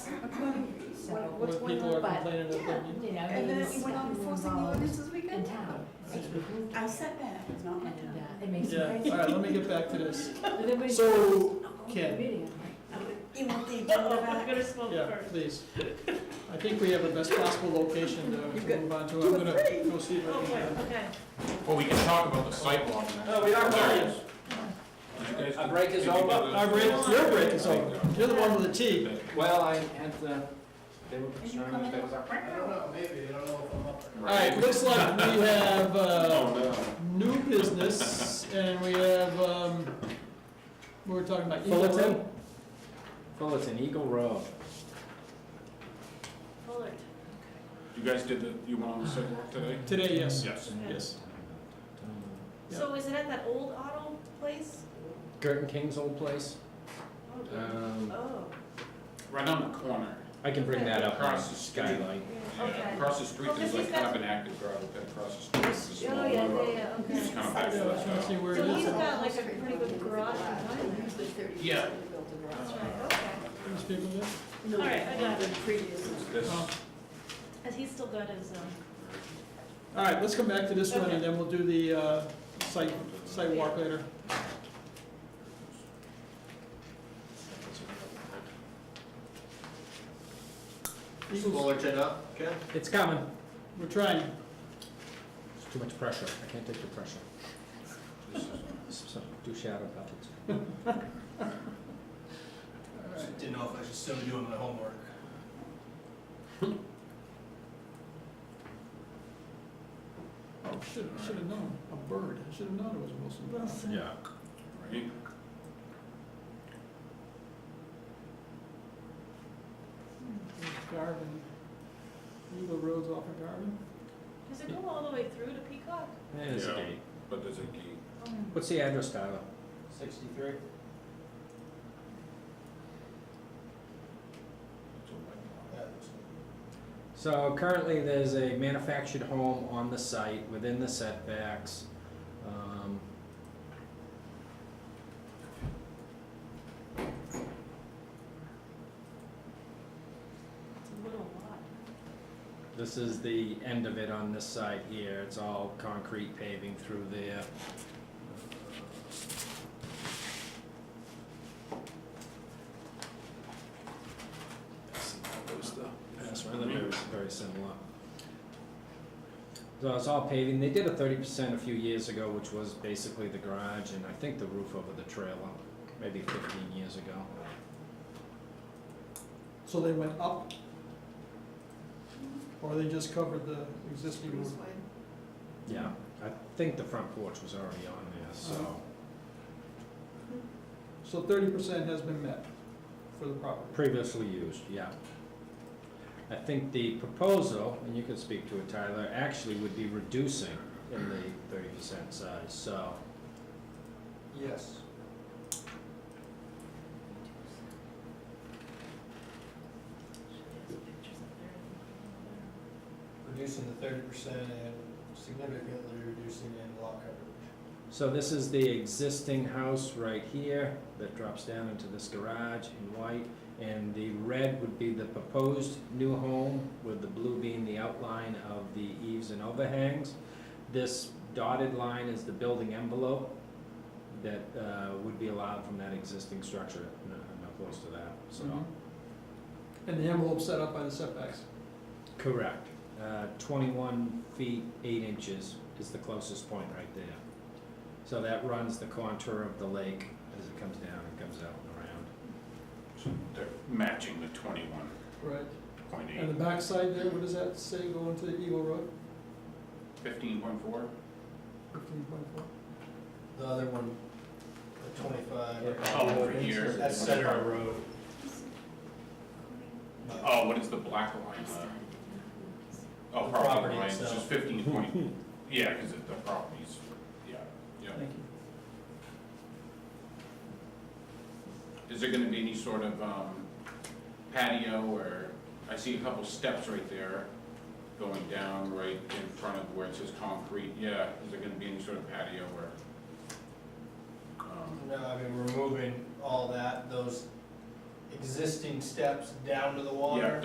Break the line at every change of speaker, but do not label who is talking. what's
Where
going
people
on,
are
but,
complaining
yeah,
about
you know,
And then
meetings
we went on
um,
that we were
enforcing the
involved
ordinances we
in
could.
town.
That's
And,
I said that, it's not my town.
uh, it makes
Yeah,
me
all right, let me get back to this.
crazy.
So, Ken,
You want the agenda back?
gonna smoke
yeah, please. I think we have the best possible location to move on to. I'm gonna go see if I can.
okay.
Well, we can talk about the sidewalk.
No, we aren't
There it
going.
is. You guys
Our
can-
break is
you can
over.
do the-
Our break, your break is over. You're the one with the tea.
Well, I had, uh, they were concerned that there was a.
I
don't know, maybe, I don't know if I'm up there.
All right, looks like we have,
Oh,
uh, new business, and we have, um, we were talking about Eagle Road.
Fullerton? Fullerton, Eagle Road.
Fuller.
You guys did the, you went on the sidewalk today?
Today, yes,
Yes.
yes.
So is it at that old auto place?
Gurton King's old place.
Oh, yeah.
Um,
Oh,
Right on the corner.
I can bring that up on
Across the street.
Skylight.
yeah,
Yeah,
okay.
Across the street,
Oh, 'cause
there's
he's
like
got-
kind of an active gravel pit across the street. It's a small
Oh, yeah,
road.
yeah, yeah,
You just
okay.
kind of uh, back to
Yeah, I was trying to
that
see where it
So
is.
he's got like a pretty good garage behind there.
Yeah.
That's right, okay.
These people there?
All right, I got it.
It's this-
Oh.
And he's still got his, um,
All right, let's come back to this one,
Okay.
and then we'll do the, uh, site, site walk later. Eagles,
Fullerton up, Ken?
It's coming.
we're trying.
It's too much pressure. I can't take the pressure.
this is-
So, do shadow puppets.
All right.
Didn't know if I should still be doing my homework.
Oh, should, should have known, a bird, I should have known it was Wilson.
Wilson.
Yeah.
Right?
Garvin, Eagle Road's off of Garvin.
does it go all the way through to Peacock? Oh,
There's a
Yeah.
gate.
But there's a gate.
What's the address, Tyler?
Sixty-three?
It's a white
Yeah. that's it.
So currently, there's a manufactured home on the site within the setbacks. Um,
It's a little lot.
This is the end of it on this side here. It's all concrete paving through there. That's where they're very, very similar. So it's all paving. They did a thirty percent a few years ago, which was basically the garage and I think the roof over the trailer, maybe fifteen years ago.
So they went up? Or they just covered the existing roof?
Yeah, I think the front porch was already on there, so.
So thirty percent has been met for the property.
Previously used, yeah. I think the proposal, and you can speak to it, Tyler, actually would be reducing in the thirty percent size, so.
Yes.
There's pictures up there.
Reducing the thirty percent and significantly reducing in lot coverage.
So this is the existing house right here that drops down into this garage in white. And the red would be the proposed new home, with the blue being the outline of the eaves and overhangs. This dotted line is the building envelope that uh, would be allowed from that existing structure, no, not close to that, so.
Mhm. And the envelope set up by the setbacks.
Correct. Uh, 21 feet, 8 inches is the closest point right there. So that runs the contour of the lake as it comes down and comes out and around.
So They're matching the twenty-one
Right.
point
And
eight,
the backside there, what does that say going to Eagle Road?
fifteen point four?
Fifteen point four?
The other one, the twenty-five.
Oh, over here.
That's center of road.
Oh, what is the black line? uh, Oh,
The
property
property
line, it's just
itself.
fifteen point, yeah, because the properties, yeah, yeah.
Thank you.
Is there gonna be any sort of um, patio or, I see a couple steps right there going down right in front of where it says concrete, yeah, is there gonna be any sort of patio or? um,
No, I mean, we're moving all that, those existing steps down to the water.
Yeah,